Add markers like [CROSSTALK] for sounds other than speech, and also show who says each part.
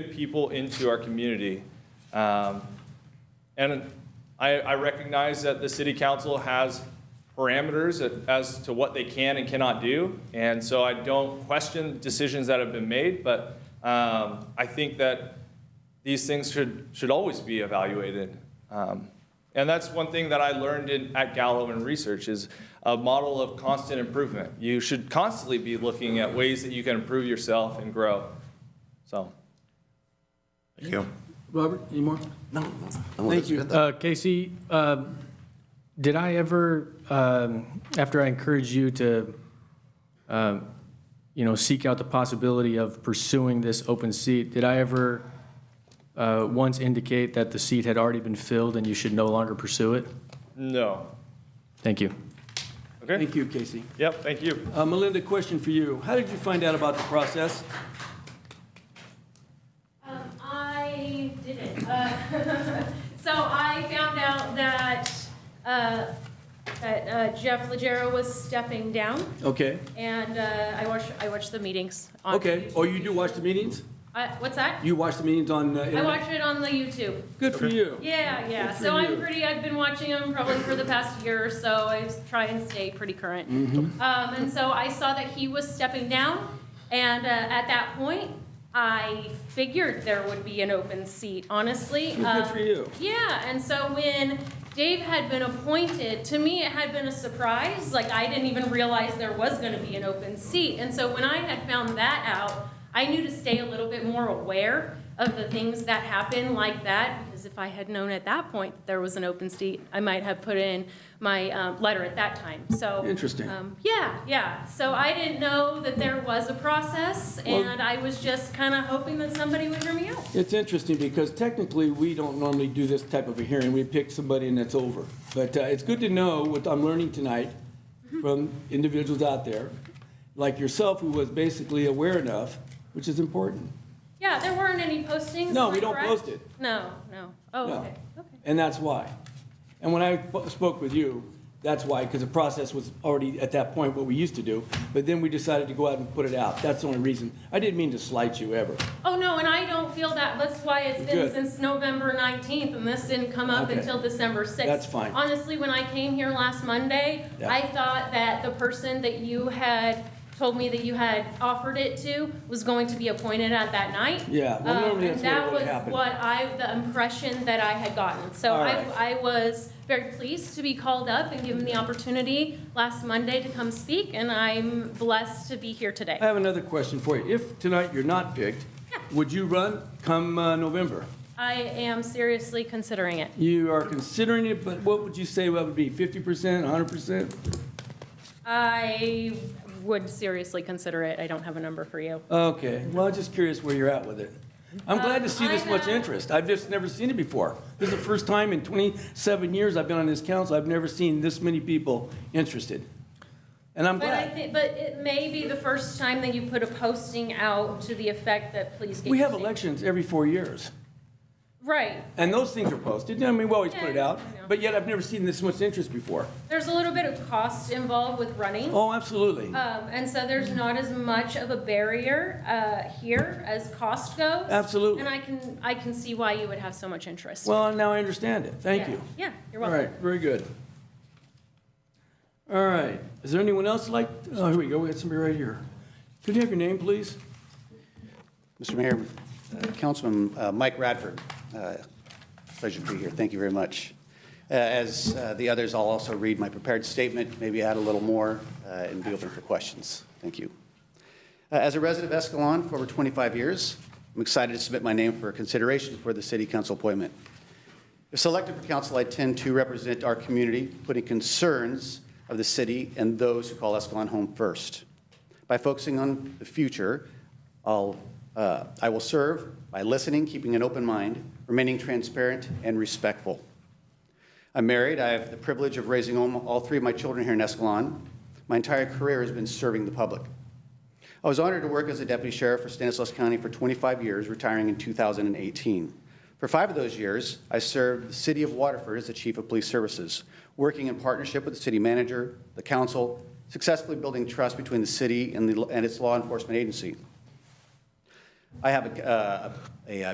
Speaker 1: new people into our community. Um, And I, I recognize that the city council has parameters a- as to what they can and cannot do. And so I don't question decisions that have been made, but um, I think that these things should, should always be evaluated. Um, and that's one thing that I learned in, at Gallo in research is a model of constant improvement. You should constantly be looking at ways that you can improve yourself and grow. So.
Speaker 2: Thank you.
Speaker 3: Robert, any more?
Speaker 2: No,
Speaker 3: Thank you.
Speaker 4: Uh, Casey, um, did I ever, um, after I encouraged you to, um, you know, seek out the possibility of pursuing this open seat, did I ever uh, once indicate that the seat had already been filled and you should no longer pursue it?
Speaker 1: No.
Speaker 4: Thank you.
Speaker 1: Okay.
Speaker 3: Thank you, Casey.
Speaker 1: Yep. Thank you.
Speaker 3: Uh, Melinda, question for you. How did you find out about the process?
Speaker 5: Um, I didn't. Uh, [LAUGHS] so I found out that uh, that uh, Jeff Legero was stepping down,
Speaker 3: Okay,
Speaker 5: and uh, I watched I watched the meetings. On
Speaker 3: okay. Oh, you do watch the meetings?
Speaker 5: I, what's that?
Speaker 3: You watch the meetings on uh,
Speaker 5: I
Speaker 3: internet?
Speaker 5: watch it on the YouTube.
Speaker 3: Good for you.
Speaker 5: Yeah, yeah.
Speaker 3: Good for
Speaker 5: So
Speaker 3: you.
Speaker 5: I'm pretty. I've been watching them probably for the past year or so. I s- try and stay pretty current.
Speaker 3: Mm-hmm.
Speaker 5: Um, and so I saw that he was stepping down, and uh, at that point, I figured there would be an open seat. Honestly, Um,
Speaker 3: Well, Good for you.
Speaker 5: Yeah, and so when Dave had been appointed, to me it had been a surprise. Like I didn't even realize there was going to be an open seat. And so when I had found that out, I knew to stay a little bit more aware of the things that happen like that because if I had known at that point that there was an open seat, I might have put in my um, letter at that time. So
Speaker 3: Interesting.
Speaker 5: Um, yeah, yeah. So I didn't know that there was a process,
Speaker 3: Well-
Speaker 5: and I was just kind of hoping that somebody would hear me out.
Speaker 3: It's interesting because technically, we don't normally do this type of a hearing. We pick somebody and it's over. But uh, it's good to know what I'm learning tonight
Speaker 5: Mm-hmm.
Speaker 3: from individuals out there, like yourself, who was basically aware enough, which is important.
Speaker 5: Yeah, there weren't any postings.
Speaker 3: No,
Speaker 5: am
Speaker 3: we
Speaker 5: I
Speaker 3: don't
Speaker 5: correct?
Speaker 3: post it.
Speaker 5: No, no. Oh,
Speaker 3: No.
Speaker 5: okay, okay.
Speaker 3: And that's why. And when I po- spoke with you, that's why, because the process was already at that point what we used to do, but then we decided to go out and put it out. That's the only reason. I didn't mean to slight you ever.
Speaker 5: Oh, no, and I don't feel that, that's why it's been
Speaker 3: Good.
Speaker 5: since November 19th, and this didn't come up
Speaker 3: Okay.
Speaker 5: until December 6th.
Speaker 3: That's fine.
Speaker 5: Honestly, when I came here last Monday,
Speaker 3: Yeah.
Speaker 5: I thought that the person that you had told me that you had offered it to was going to be appointed at that night.
Speaker 3: Yeah, well,
Speaker 5: Um,
Speaker 3: normally that's
Speaker 5: and
Speaker 3: what
Speaker 5: that
Speaker 3: would
Speaker 5: was
Speaker 3: happen.
Speaker 5: what I, the impression that I had gotten. So
Speaker 3: All
Speaker 5: I,
Speaker 3: right.
Speaker 5: I was very pleased to be called up and given the opportunity last Monday to come speak, and I'm blessed to be here today.
Speaker 3: I have another question for you. If tonight you're not
Speaker 5: [LAUGHS]
Speaker 3: picked, would you run come uh, November?
Speaker 5: I am seriously considering it.
Speaker 3: You are considering it, but what would you say that would be, 50%, 100%?
Speaker 5: I would seriously consider it. I don't have a number for you.
Speaker 3: Okay, well, I'm just curious where you're at with it. I'm glad to see this
Speaker 5: Um, I
Speaker 3: much
Speaker 5: have-
Speaker 3: interest. I've just never seen it before. This is the first time in 27 years I've been on this council, I've never seen this many people interested. And I'm
Speaker 5: But I
Speaker 3: glad.
Speaker 5: think, but it may be the first time that you put a posting out to the effect that please get.
Speaker 3: We
Speaker 5: your
Speaker 3: have
Speaker 5: seat.
Speaker 3: elections every four years,
Speaker 5: Right.
Speaker 3: and those things are posted. I mean, we always put it
Speaker 5: Yeah,
Speaker 3: out,
Speaker 5: yeah.
Speaker 3: but yet I've never seen this much interest before.
Speaker 5: There's a little bit of cost involved with running.
Speaker 3: Oh, absolutely.
Speaker 5: Um, and so there's not as much of a barrier, uh, here as cost goes.
Speaker 3: Absolutely.
Speaker 5: And I can, I can see why you would have so much interest.
Speaker 3: Well, now I understand it. Thank
Speaker 5: Yeah.
Speaker 3: you.
Speaker 5: Yeah, you're
Speaker 3: All
Speaker 5: welcome.
Speaker 3: right, very good. All right, is there anyone else like, oh, here we go, we got somebody right here. Could you have your name, please?
Speaker 6: Mr. Mayor, uh, Councilman uh, Mike Radford, uh, pleasure to be here. Thank you very much. Uh, As uh, the others, I'll also read my prepared statement, maybe add a little more, uh, and be open for questions. Thank you. Uh, As a resident of Escalon for over 25 years, I'm excited to submit my name for consideration for the city council appointment. If selected for council, I tend to represent our community, putting concerns of the city and those who call Escalon home first. By focusing on the future, I'll, uh, I will serve by listening, keeping an open mind, remaining transparent and respectful. I'm married. I have the privilege of raising all all three of my children here in Escalon. My entire career has been serving the public. I was honored to work as a deputy sheriff for Stanislaus County for 25 years, retiring in 2018. For five of those years, I served the city of Waterford as the chief of police services, working in partnership with the city manager, the council, successfully building trust between the city and the- and its law enforcement agency. I have a, uh, a